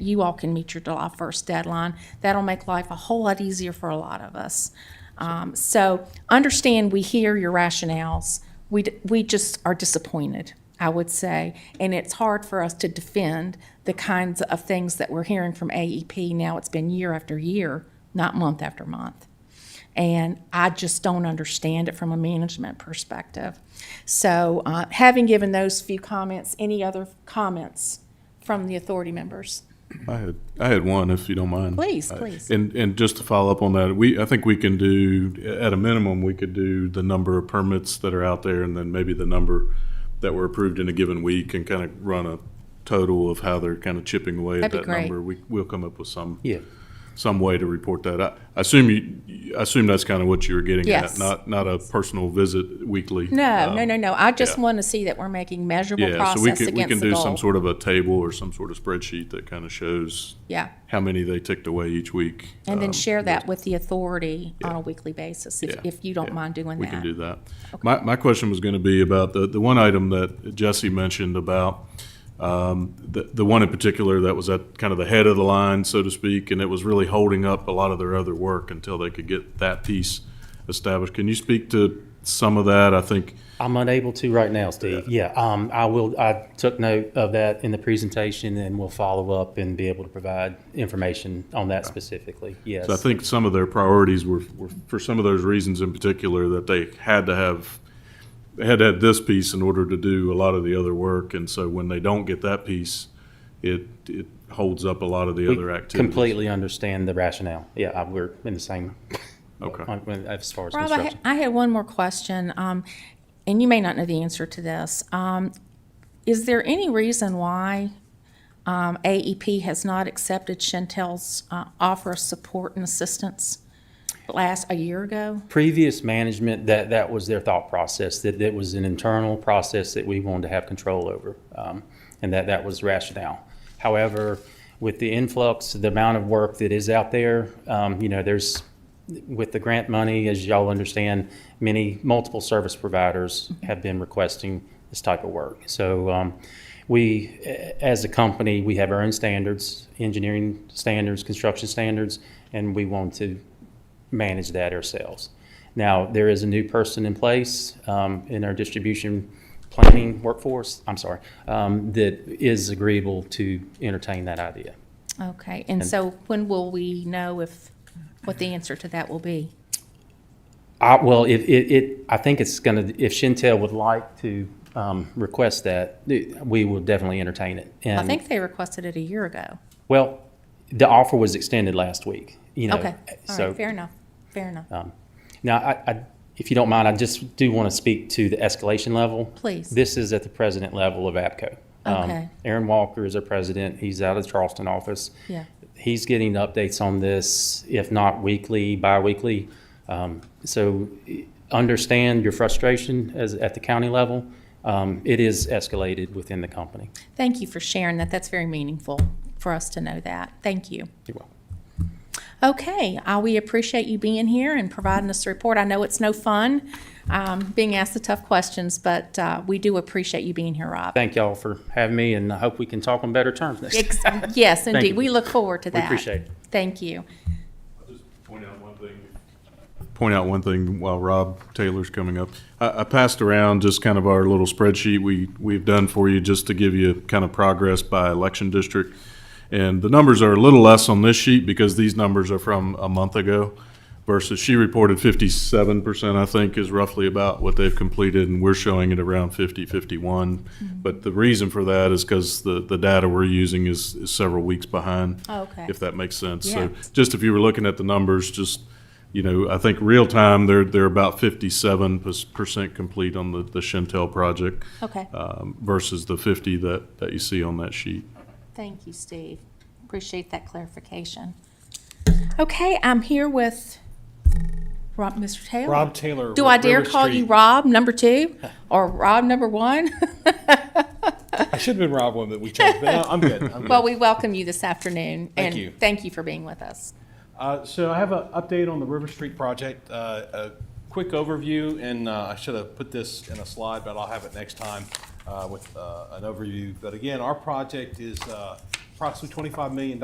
you all can meet your July 1st deadline. That'll make life a whole lot easier for a lot of us. Um, So understand, we hear your rationales. We, d- we just are disappointed, I would say. And it's hard for us to defend the kinds of things that we're hearing from AEP. Now it's been year after year, not month after month. And I just don't understand it from a management perspective. So, uh, having given those few comments, any other comments from the authority members? I had, I had one, if you don't mind. Please, Uh, please. And, and just to follow up on that, we, I think we can do, at a minimum, we could do the number of permits that are out there and then maybe the number that were approved in a given week and kind of run a total of how they're kind of chipping away at That'd be that great. number. We, we'll come up with some, Yeah, some way to report that. I I assume you, I assume that's kind of what you were getting at, Yes. not, not a personal visit weekly. No, um, no, no, no. I just yeah. want to see that we're making measurable Yeah, so we process can, we can against the do some goal. sort of a table or some sort of spreadsheet that kind of shows Yeah, how many they ticked away each week. and then Um, share that with the authority on a weekly basis, if, yeah, if you don't yeah, mind doing We can that. do that. My, my question was going to be about the, the one item that Jesse mentioned about, um, the, the one in particular that was at kind of the head of the line, so to speak, and it was really holding up a lot of their other work until they could get that piece established. Can you speak to some of that? I think, I'm unable to right now, Steve. Yeah, um, I will, I took note of that in the presentation and we'll follow up and be able to provide information on that specifically, yes. So I think some of their priorities were, were for some of those reasons in particular that they had to have, they had to have this piece in order to do a lot of the other work. And so when they don't get that piece, it, it holds up a lot of the We other activities. Completely understand the rationale. Yeah, I- we're in the same, Okay. on- when- as far as Rob, I, ha- construction. I had one more question, um, and you may not know the answer to this. Um, is there any reason why, um, AEP has not accepted Chantel's, uh, offer of support and assistance last, a year ago? Previous management, that, that was their thought process, that that was an internal process that we wanted to have control over. um, And that, that was rationale. However, with the influx, the amount of work that is out there, um, you know, there's, with the grant money, as y'all understand, many, multiple service providers have been requesting this type of work. So um, we, a- as a company, we have our own standards, engineering standards, construction standards, and we want to manage that ourselves. Now, there is a new person in place um, in our distribution planning workforce, I'm sorry, um, that is agreeable to entertain that idea. Okay, and so when will we know if, what the answer to that will be? I, well, it, it, it, I think it's gonna, if Chantel would like to, um, request that, th- we will definitely entertain it. I And, think they requested it a year ago. Well, the offer was extended last week, you know. Okay, all so- right, fair enough, fair enough. Now, I, I, if you don't mind, I just do want to speak to the escalation level. Please. This is at the president level of APCO. Um, Okay. Aaron Walker is our president. He's out of the Charleston office. Yeah. He's getting updates on this, if not weekly, bi-weekly. Um, so eh, understand your frustration as, at the county level. Um, it is escalated within the company. Thank you for sharing that, that's very meaningful for us to know that, thank you. You're welcome. Okay, uh, we appreciate you being here and providing us a report. I know it's no fun um, being asked the tough questions, but uh, we do appreciate you being here, Rob. Thank y'all for having me and I hope we can talk on better terms next time. Ex- Yes, indeed, you. we look forward to that. appreciate it. Thank you. Point out one thing. Point out one thing while Rob Taylor's coming up. I, I passed around just kind of our little spreadsheet we, we've done for you just to give you kind of progress by election district. And the numbers are a little less on this sheet because these numbers are from a month ago versus she reported fifty-seven percent, I think, is roughly about what they've completed and we're showing it around 50, 51. But the reason for that is because the, the data we're using is, is several weeks behind. Okay. If that makes sense. Yeah. So just if you were looking at the numbers, just, you know, I think real time, they're, they're about fifty-seven percent complete on the, the Chantel project Okay, um, versus the fifty that, that you see on that sheet. thank you, Steve. Appreciate that clarification. Okay, I'm here with Rob, Mr. Taylor. Rob Taylor. Do with I dare River call you Street. Rob, number two, or Rob, number one? I should have been Rob one, but we changed. But no, I'm good. I'm good. Well, we welcome you this afternoon. Thank you. And thank you for being with us. Uh, so I have an update on the River Street project. Uh, a quick overview, and uh, I should have put this in a slide, but I'll have it next time uh, with uh, an overview. But again, our project is uh, approximately $25 million